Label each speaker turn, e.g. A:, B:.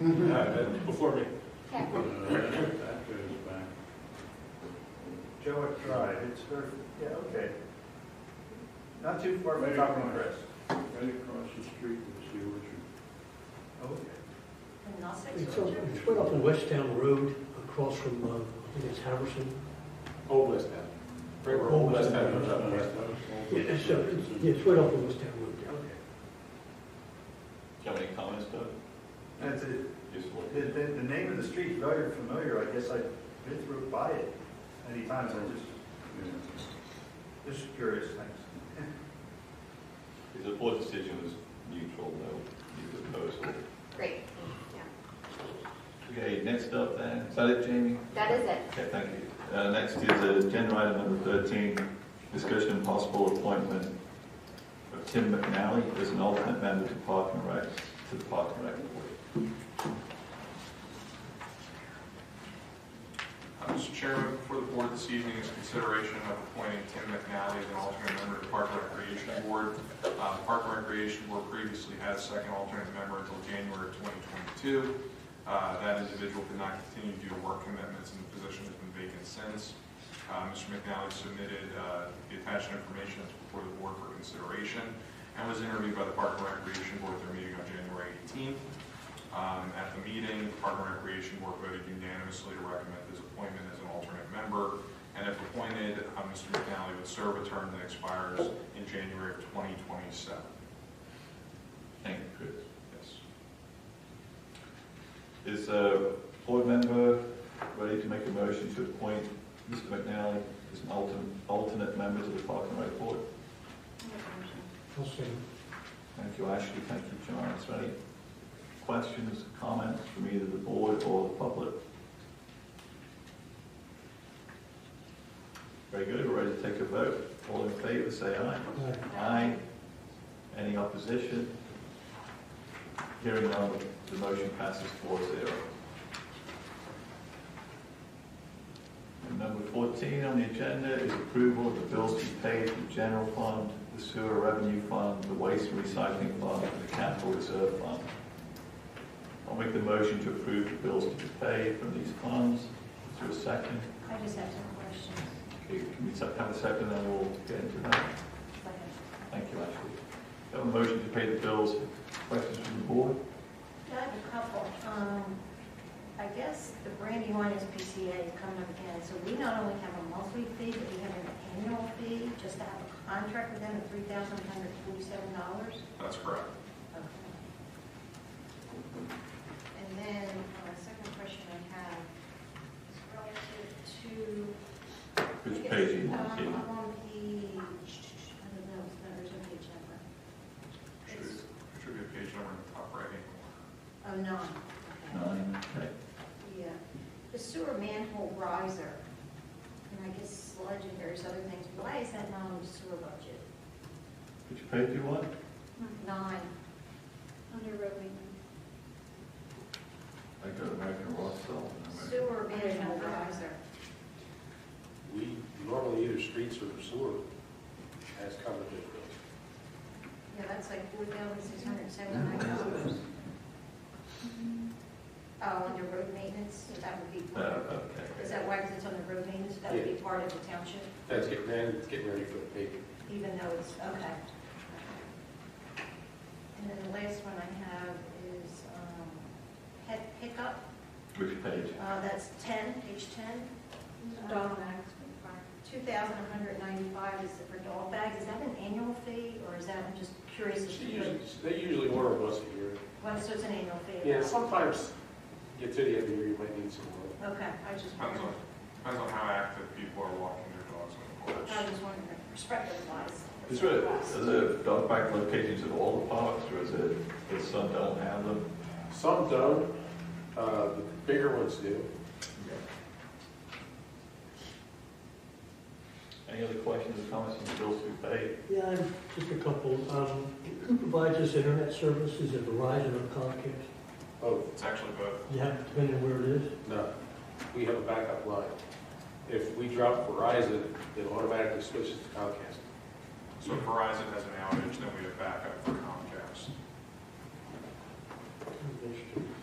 A: No, that's Uh, Before me.
B: Okay.
C: Uh, That that goes back.
D: Joe it tried, it's her, yeah, okay. Not too far from Congress.
C: Right across the street is the orchard.
D: Okay.
B: And I'll say
E: It's up,
B: Georgia.
E: it's right up on Westtown Road, across from, uh, I think it's Harrison.
A: Old West Town. Right where Old West Town comes up. West Town.
E: Yeah, it's, uh, it's- yeah, it's right up on Westtown Road there.
D: Okay.
F: Do you have any comments, Doug?
D: That's it.
F: Just what?
D: The, the, the name of the street, very familiar, I guess I've been through by it many times, I just,
C: Yeah.
D: just curious, thanks.
F: Is the board decision was neutral, no, you opposed.
B: Great.
F: Okay, next up then, is that it, Jamie?
B: That is it.
F: Okay, thank you. Uh, next is agenda item number thirteen, discussion and possible appointment of Tim McNally as an alternate member to Park and Rec, to the Park and Rec Board.
G: Uh, Mr. Chairman, before the board this evening is consideration of appointing Tim McNally as an alternate member to Park and Recreation Board. Uh, Park and Recreation Board previously had a second alternate member until January 2022. Uh, That individual did not continue due to work commitments, and the position has been vacant since. Uh, Mr. McNally submitted uh, the attached information that's before the board for consideration, and was interviewed by the Park and Recreation Board at their meeting on January 18th. Um, At the meeting, the Park and Recreation Board voted unanimously to recommend his appointment as an alternate member. And if appointed, uh, Mr. McNally would serve a term that expires in January of 2027.
F: Thank you, Chris. Is
G: Yes.
F: a board member ready to make a motion to appoint Mr. McNally as an alternate, alternate member to the Park and Rec Board?
E: I'll say.
F: Thank you, Ashley. Thank you, John. Is there any questions, comments from either the board or the public? Very good. We're ready to take a vote. All in favor, say aye.
E: Aye.
F: Aye. Any opposition? Hearing none, the motion passes four zero. And number fourteen on the agenda is approval of the bills to be paid from the general fund, the sewer revenue fund, the waste and recycling fund, and the capital reserve fund. I'll make the motion to approve the bills to be paid from these funds. Is there a second?
H: I just have some questions.
F: Okay, can we se- have a second, then we'll get into that? Thank you, Ashley. Have a motion to pay the bills. Questions from the board?
H: I have a couple. Um, I guess the Brandywine SPCA is coming up again, so we not only have a monthly fee, but we have an annual fee just to have a contract with them of three thousand one hundred forty-seven dollars.
G: That's correct.
H: And then, uh, second question I have is relative to
F: Which page do you want to
H: Um,
F: see?
H: I'm on page, I don't know, it's not, there's no page number.
G: Should
H: It's,
G: should be a page number in the top right hand
H: oh,
G: corner.
H: nine. Okay.
F: Nine, okay.
H: Yeah, the sewer manhole riser, and I guess sludge and various other things, why is that not on the sewer budget?
F: Which page do you want?
H: Nine. Under road maintenance.
F: I go to American Ross Salt.
H: Sewer manhole riser.
A: We normally either streets or sewer has covered those bills.
H: Yeah, that's like four thousand six hundred seventy-nine dollars. Oh, under road maintenance, so that would be,
F: Uh,
H: part of-
F: okay.
H: is that why, 'Cause it's on the road maintenance, that would be part of the township?
A: That's getting, man, it's getting ready for the big.
H: even though it's, okay. And then the last one I have is um, pet pickup,
F: Which page?
H: Uh, that's 10, page 10. Dog bags. 2,195 is for dog bags, is that an annual fee, or is that, I'm just curious, if
A: She
H: you could-
A: usually- They usually order once a year.
H: well, so it's an annual fee?
A: Yeah, sometimes you get to the end of the year, you might need some more.
H: Okay, I just
G: Depends on,
H: wondered,
G: depends on how active people are walking their dogs on the porch.
H: I just wondered, perspective wise.
F: Is there, is there dog park locations at all the parks, or is it, if some don't have them?
A: Some don't, uh, the bigger ones do.
F: Any other questions or comments on the bills to be paid?
E: Yeah, I'm- just a couple. Um, Who provides this internet service? Is it Verizon or Comcast?
A: Oh,
G: It's actually both.
E: Yeah, depending on where it is.
A: no, we have a backup line. If we drop Verizon, it automatically switches to Comcast.
G: So if Verizon has an outage, then we have backup for Comcast.
E: Interesting.